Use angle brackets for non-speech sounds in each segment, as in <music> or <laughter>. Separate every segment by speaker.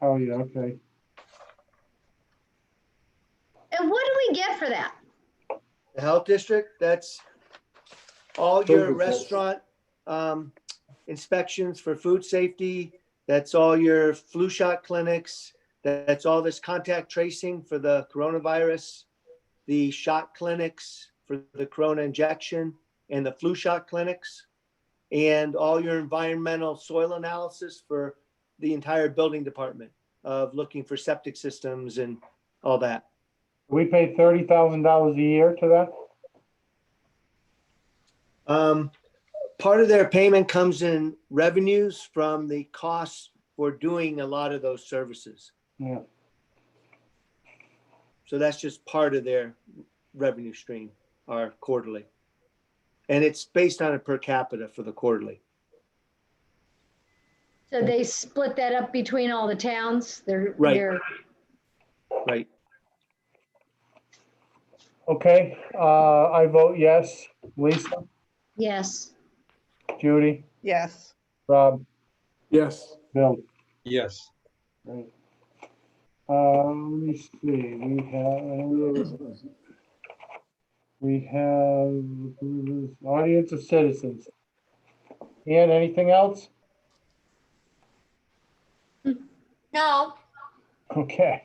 Speaker 1: Oh, yeah, okay.
Speaker 2: And what do we get for that?
Speaker 3: The health district, that's all your
Speaker 1: Food reports.
Speaker 3: restaurant um, inspections for food safety. That's all your flu shot clinics. That's all this contact tracing for the coronavirus, the shot clinics for the corona injection and the flu shot clinics. And all your environmental soil analysis for the entire building department of looking for septic systems and all that.
Speaker 1: We pay thirty thousand dollars a year to that?
Speaker 3: Um, part of their payment comes in revenues from the costs for doing a lot of those services.
Speaker 1: Yeah.
Speaker 3: So that's just part of their revenue stream, our quarterly. And it's based on a per capita for the quarterly.
Speaker 2: So they split that up between all the towns? They're,
Speaker 3: Right.
Speaker 2: they're,
Speaker 3: Right.
Speaker 1: Okay, uh, I vote yes. Lisa,
Speaker 2: yes.
Speaker 1: Judy,
Speaker 4: Yes,
Speaker 1: Rob,
Speaker 5: Yes.
Speaker 1: Bill.
Speaker 5: Yes.
Speaker 1: Great. Uh, let me see, we have. We have audience of citizens. Ian, anything else?
Speaker 2: No.
Speaker 1: Okay.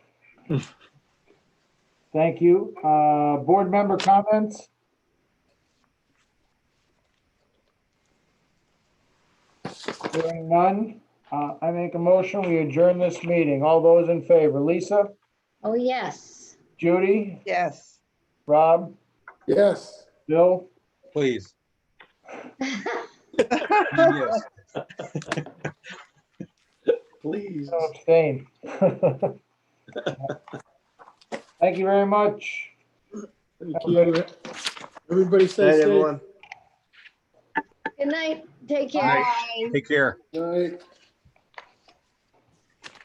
Speaker 1: Thank you. Uh, board member comments? Hearing none, uh, I make a motion, we adjourn this meeting. All those in favor, Lisa,
Speaker 2: Oh, yes. <laughs>
Speaker 1: Judy,
Speaker 4: yes.
Speaker 1: Rob,
Speaker 5: Yes.
Speaker 1: Bill,
Speaker 6: Please. Yes.
Speaker 3: Please.
Speaker 1: Oh, abstain. <laughs> Thank you very much.
Speaker 5: Thank you. Everybody
Speaker 3: Night,
Speaker 5: stay safe.
Speaker 3: everyone.
Speaker 2: Good night. Take care.
Speaker 6: Bye. Take care.
Speaker 5: Night.